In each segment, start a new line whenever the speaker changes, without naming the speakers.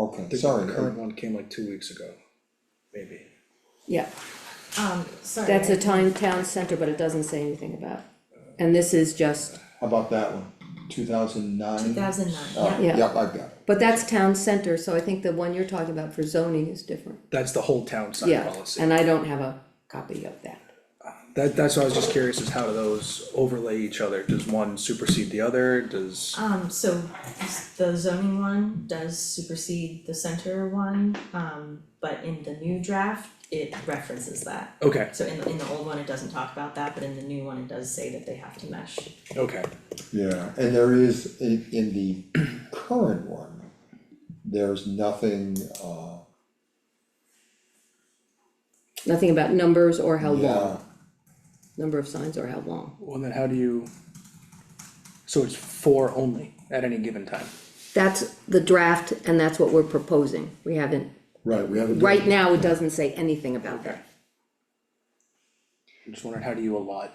okay,
The
sorry,
current
I-
one came like two weeks ago, maybe.
yeah,
Um, sorry.
that's a town, town center, but it doesn't say anything about. And this is just,
how about that one, two thousand nine?
Two thousand nine, yeah,
Oh, Yeah.
Yep, I've got it,
but that's town center, so I think the one you're talking about for zoning is different,
That's the whole town sign
yeah,
policy.
and I don't have a copy of that.
That, that's why I was just curious, is how do those overlay each other? Does one supersede the other? Does,
um, so s- the zoning one does supersede the center one, um, but in the new draft, it references that.
okay,
So in the, in the old one, it doesn't talk about that, but in the new one, it does say that they have to mesh.
okay,
yeah, and there is, in, in the current one, there's nothing, uh,
Nothing about numbers or how
yeah,
long, number of signs or how long,
well then how do you? So it's four only at any given time?
that's the draft, and that's what we're proposing, we haven't,
right, we haven't.
right now, it doesn't say anything about that.
I'm just wondering, how do you allot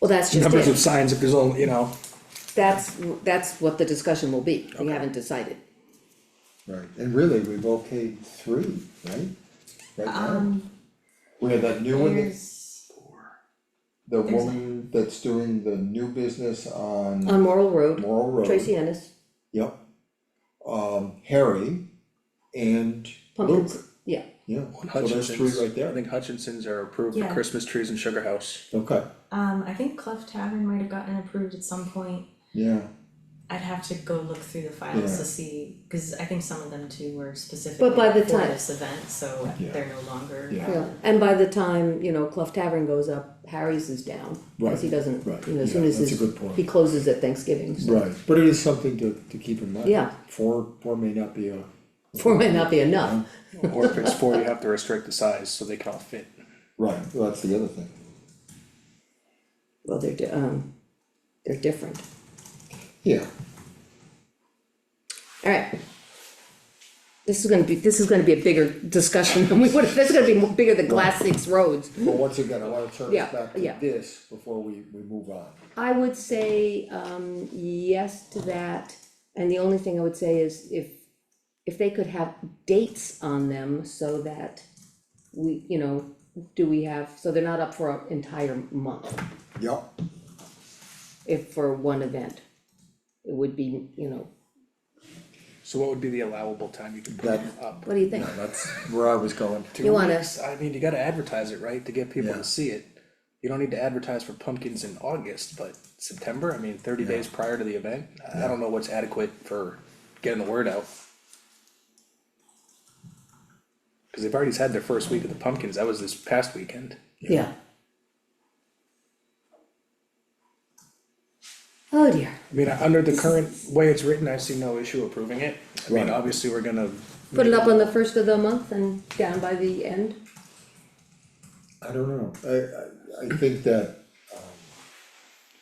Well, that's just
numbers of
it,
signs if there's only, you know?
that's, that's what the discussion will be, we haven't decided.
Right, and really, we've okayed three, right? Right now,
Um,
we have that new one, that-
here's,
the
there's a-
woman that's doing the new business on
On
Um,
Morrill Road,
Laurel Road.
Tracy Ennis,
Yep. Um, Harry and Luke,
pumpkins, yeah,
yeah, so there's three
Hutchinson's,
right
I
there,
think Hutchinson's are approved for
Yeah.
Christmas trees and sugar house.
okay,
um, I think Cleft Tavern might have gotten approved at some point.
yeah,
I'd have to go look through the files
Yeah.
to see, cause I think some of them too were specific
But by the
for
time-
this event, so
Yeah.
they're no longer.
Yeah.
yeah, and by the time, you know, Clough Tavern goes up, Harry's is down, cause he
Right,
doesn't,
right,
you know, as
yeah,
soon as
that's a
his,
good point.
he closes at Thanksgiving, so.
right, but it is something to to keep in mind.
Yeah.
Four, four may not be a,
Four might not be enough,
Or if it's four, you have to restrict the size so they can all fit.
right, well, that's the other thing,
well, they're, di- um, they're different,
yeah,
alright. This is gonna be, this is gonna be a bigger discussion than we would, this is gonna be mo- bigger than Glass Six roads.
but once again, I wanna turn
Yeah,
us back to
yeah.
this before we we move on.
I would say, um, yes to that, and the only thing I would say is if, if they could have dates on them so that we, you know, do we have, so they're not up for an entire month,
Yep,
if for one event. It would be, you know,
So what would be the allowable time you could put
That-
them up?
what do you think?
that's where I was going.
Two
You wanna-
weeks? I mean, you gotta advertise it, right, to get people
Yeah.
to see it. You don't need to advertise for pumpkins in August, but September, I mean, thirty days prior to the event, I I don't know what's adequate for getting the word out. Cause they've already had their first week of the pumpkins, that was this past weekend.
Yeah. Oh dear,
I mean, under the current way it's written, I see no issue approving it. I mean,
Right.
obviously, we're gonna.
put it up on the first of the month and down by the end,
I don't know, I, I, I think that, um,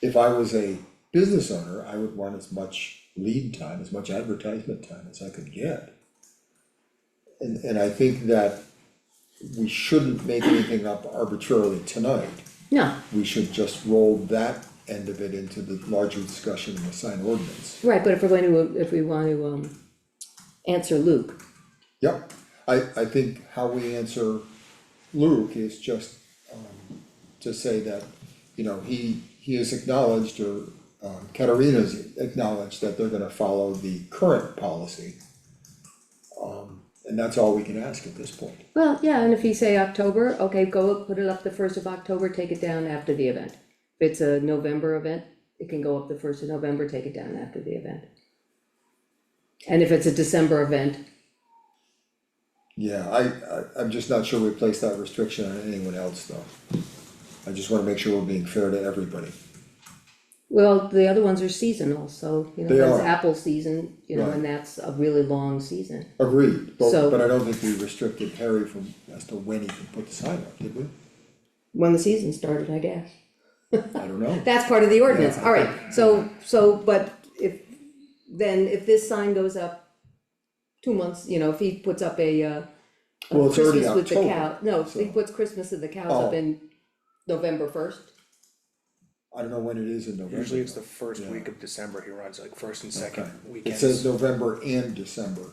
if I was a business owner, I would want as much lead time, as much advertisement time as I could get. And, and I think that we shouldn't make anything up arbitrarily tonight.
no,
We should just roll that end of it into the larger discussion of the sign ordinance.
right, but if we're going to, if we want to, um, answer Luke.
Yep, I, I think how we answer Luke is just, um, to say that, you know, he, he has acknowledged or, um, Katerina's acknowledged that they're gonna follow the current policy. Um, and that's all we can ask at this point.
Well, yeah, and if you say October, okay, go up, put it up the first of October, take it down after the event. If it's a November event, it can go up the first of November, take it down after the event. And if it's a December event,
Yeah, I, I, I'm just not sure we place that restriction on anyone else though. I just wanna make sure we're being fair to everybody.
well, the other ones are seasonal, so, you know,
They
that's
are.
apple season, you know,
Right.
and that's a really long season.
Agreed, but,
So-
but I don't think we restricted Harry from, as to when he can put the sign up, did we?
When the season started, I guess.
I don't know.
That's part of the ordinance,
Yeah.
alright, so, so, but if, then if this sign goes up two months, you know, if he puts up a, uh, a
Well, it's already
Christmas with the
October,
cow, no, if he
so-
puts Christmas of the cows
Oh.
up in November first,
I don't know when it is in November.
Usually it's
though.
the first
Yeah.
week of December, he runs like first and
Okay.
second weekends.
It says November and December,